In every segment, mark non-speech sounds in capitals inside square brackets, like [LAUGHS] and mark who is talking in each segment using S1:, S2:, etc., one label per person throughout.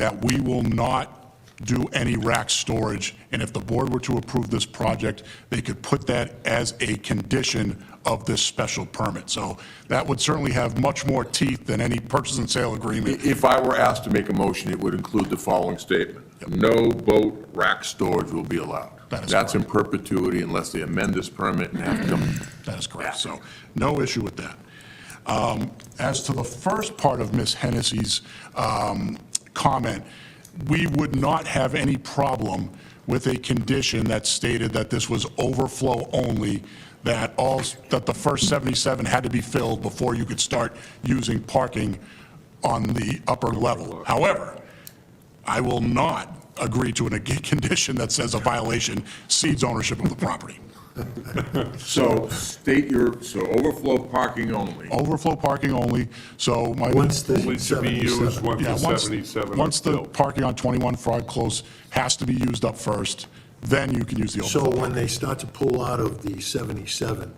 S1: that we will not do any rack storage, and if the board were to approve this project, they could put that as a condition of this special permit. So that would certainly have much more teeth than any purchase and sale agreement.
S2: If I were asked to make a motion, it would include the following statement. No boat rack storage will be allowed.
S1: That is
S2: That's in perpetuity unless they amend this permit and have to come.
S1: That is correct, so no issue with that. Um, As to the first part of Ms. Hennessy's um, comment, we would not have any problem with a condition that stated that this was overflow only, that all, that the first 77 had to be filled before you could start using parking on the upper level. However, I will not agree to a condition that says a violation cedes ownership of the property.
S2: So state your, so overflow parking only.
S1: overflow parking only, so my.
S3: Once the
S4: Only to be used
S3: 77.
S4: once
S1: Yeah,
S4: the
S1: once-
S4: 77 are
S1: Once the
S4: built.
S1: parking on 21 Frog Close has to be used up first, then you can use the overflow,
S3: So when they start to pull out of the 77,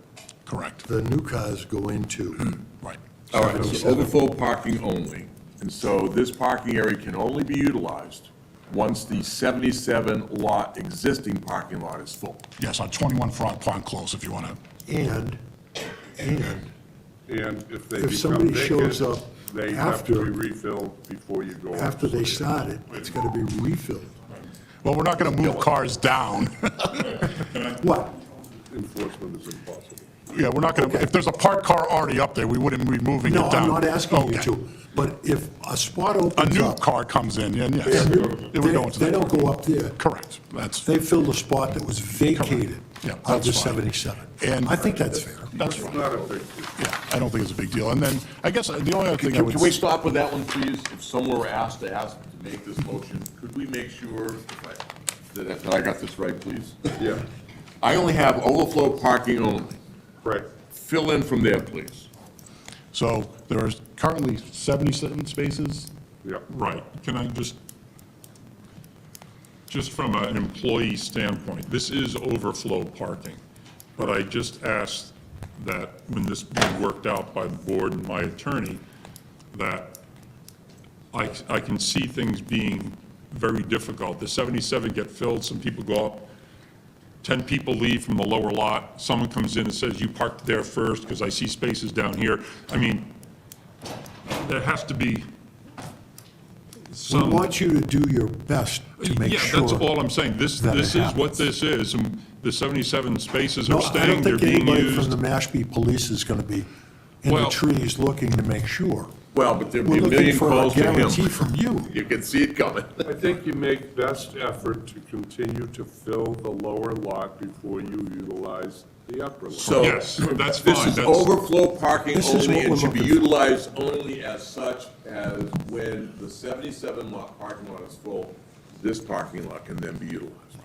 S1: correct,
S3: the new cars go into,
S1: right.
S2: All right, so overflow parking only. And so this parking area can only be utilized once the 77 lot, existing parking lot is full.
S1: Yes, on 21 Frog Pond Close, if you want to,
S3: and, and
S4: And if they
S3: If
S4: become
S3: somebody shows
S4: vacant,
S3: up
S4: they have to
S3: after-
S4: be refilled before you go.
S3: after they start it, it's got to be refilled.
S1: well, we're not going to move cars down. [LAUGHS]
S3: What?
S4: Enforcement is impossible.
S1: Yeah, we're not going to, if there's a parked car already up there, we wouldn't be moving it
S3: No,
S1: down.
S3: I'm not asking you
S1: Okay.
S3: to, but if a spot
S1: A
S3: opens
S1: new
S3: up.
S1: car comes in, and yes, it would go into
S3: They they
S1: that,
S3: don't go up there.
S1: correct, that's,
S3: They fill the spot that was vacated
S1: Yeah,
S3: of the
S1: that's fine.
S3: 77.
S1: And-
S3: I think that's fair.
S1: that's fine,
S4: Not a big deal.
S1: yeah, I don't think it's a big deal. And then, I guess, uh, the only other thing I
S2: Can
S1: would.
S2: can we stop with that one, please? If someone were asked to ask to make this motion, could we make sure that I- that I got this right, please?
S4: Yeah,
S2: I only have overflow parking only.
S4: correct.
S2: Fill in from there, please.
S1: So there are currently 77 spaces?
S4: Yeah.
S5: Right, can I just, just from an employee standpoint, this is overflow parking, but I just asked that when this be worked out by the board and my attorney, that I, I can see things being very difficult. The 77 get filled, some people go up, 10 people leave from the lower lot, someone comes in and says, you parked there first because I see spaces down here. I mean, there has to be
S3: We
S5: some.
S3: want you to do your best to make sure.
S5: Yeah, that's all I'm saying. This,
S3: that it
S5: this is what
S3: happens.
S5: this is, and the 77 spaces
S3: No,
S5: are
S3: I don't
S5: staying, they're
S3: think
S5: being
S3: anybody from the
S5: used.
S3: Mashpee Police is going to be in the
S5: Well-
S3: trees looking to make sure.
S2: Well, but there'd
S3: We're
S2: be a
S3: looking
S2: million
S3: for a
S2: calls to
S3: guarantee
S2: him.
S3: from you.
S2: You can see it coming.
S4: I think you make best effort to continue to fill the lower lot before you utilize the upper lot.
S2: So
S5: Yes, that's
S2: this
S5: fine,
S2: is
S5: that's-
S2: overflow parking
S3: This is
S2: only
S3: what
S2: and
S3: we're
S2: should be
S3: looking for.
S2: utilized only as such as when the 77 lot parking lot is full, this parking lot can then be utilized.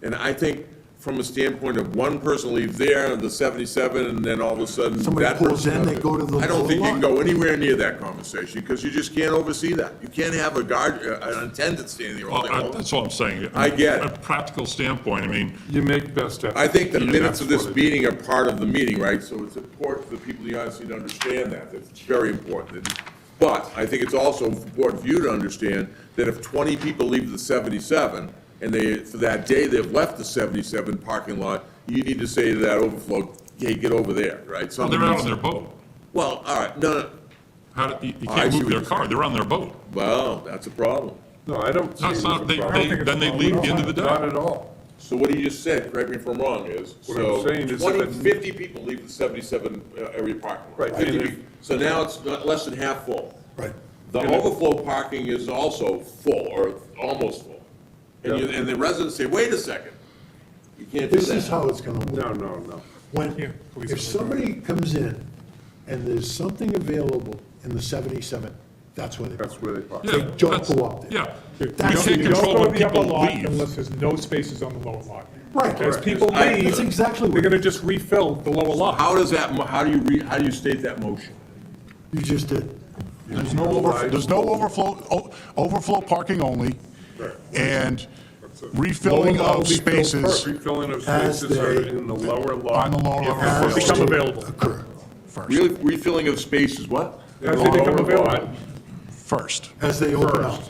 S2: And I think from a standpoint of one person leave there and the 77 and then all of a sudden
S3: Somebody
S2: that
S3: pulls
S2: person
S3: in,
S2: does
S3: they
S2: it.
S3: go to the
S2: I don't think you
S3: lot.
S2: can go anywhere near that conversation because you just can't oversee that. You can't have a guard, uh, an attendant standing there all day
S5: Well, Oh, I-
S2: long.
S5: That's all I'm saying.
S2: I get it.
S5: From A practical standpoint, I mean,
S4: You make best effort.
S2: I think the
S4: Yeah,
S2: minutes of
S4: that's
S2: this
S4: what it-
S2: meeting are part of the meeting, right? So it's important for the people in the audience to understand that, that's very important. But I think it's also important for you to understand that if twenty people leave the seventy-seven, and they, for that day, they've left the seventy-seven parking lot, you need to say to that overflow, hey, get over there, right?
S5: well, they're out on their boat.
S2: Well, all right, no, no,
S5: How, do- you you
S2: I
S5: can't
S2: see
S5: move
S2: what
S5: their
S2: you're
S5: car, they're on their boat.
S2: well, that's a problem.
S4: No, I don't see
S5: No,
S4: it as
S5: it's
S4: a
S5: not, they,
S4: problem.
S5: they, then they leave at the end of the
S4: Not
S5: day.
S4: at all.
S2: So what he just said, correct me if I'm wrong, is,
S4: What I'm
S2: so
S4: saying is
S2: 20,
S4: that-
S2: 50 people leave the seventy-seven uh, area parking lot.
S4: Right, and
S2: 50
S4: if-
S2: people. So now it's not- less than half full.
S3: Right.
S2: The overflow parking is also full, or almost full. And you, and the residents say, wait a second, you can't do
S3: This is
S2: that.
S3: how it's going to work.
S4: No, no, no.
S3: When, if somebody comes in and there's something available in the 77, that's where they
S4: That's where they park.
S5: Yeah,
S3: They don't
S5: that's-
S3: go up there.
S5: Yeah. You
S3: That's-
S5: can't
S3: You don't
S5: control when
S6: Don't go to the upper
S5: people
S6: lot
S5: leave.
S6: unless there's no spaces on the lower lot.
S3: Right.
S6: As people
S2: I-
S6: leave.
S2: That's
S3: exactly what-
S6: They're gonna just refill the lower lot.
S2: How does that, mo- how do you re, how do you state that motion?
S3: You just did.
S1: There's no overflow, there's no overflow, o- overflow parking only, and refilling
S6: Lower
S1: of
S6: level will be filled
S1: spaces
S4: Refilling of
S3: As
S4: spaces are
S3: they-
S4: in the lower lot.
S1: on the lower level
S3: As
S1: first.
S6: Become available.
S3: Occur.
S2: Really, refilling of spaces, what?
S6: As they become
S4: Lower lot.
S6: available.
S1: first.
S3: as they open up.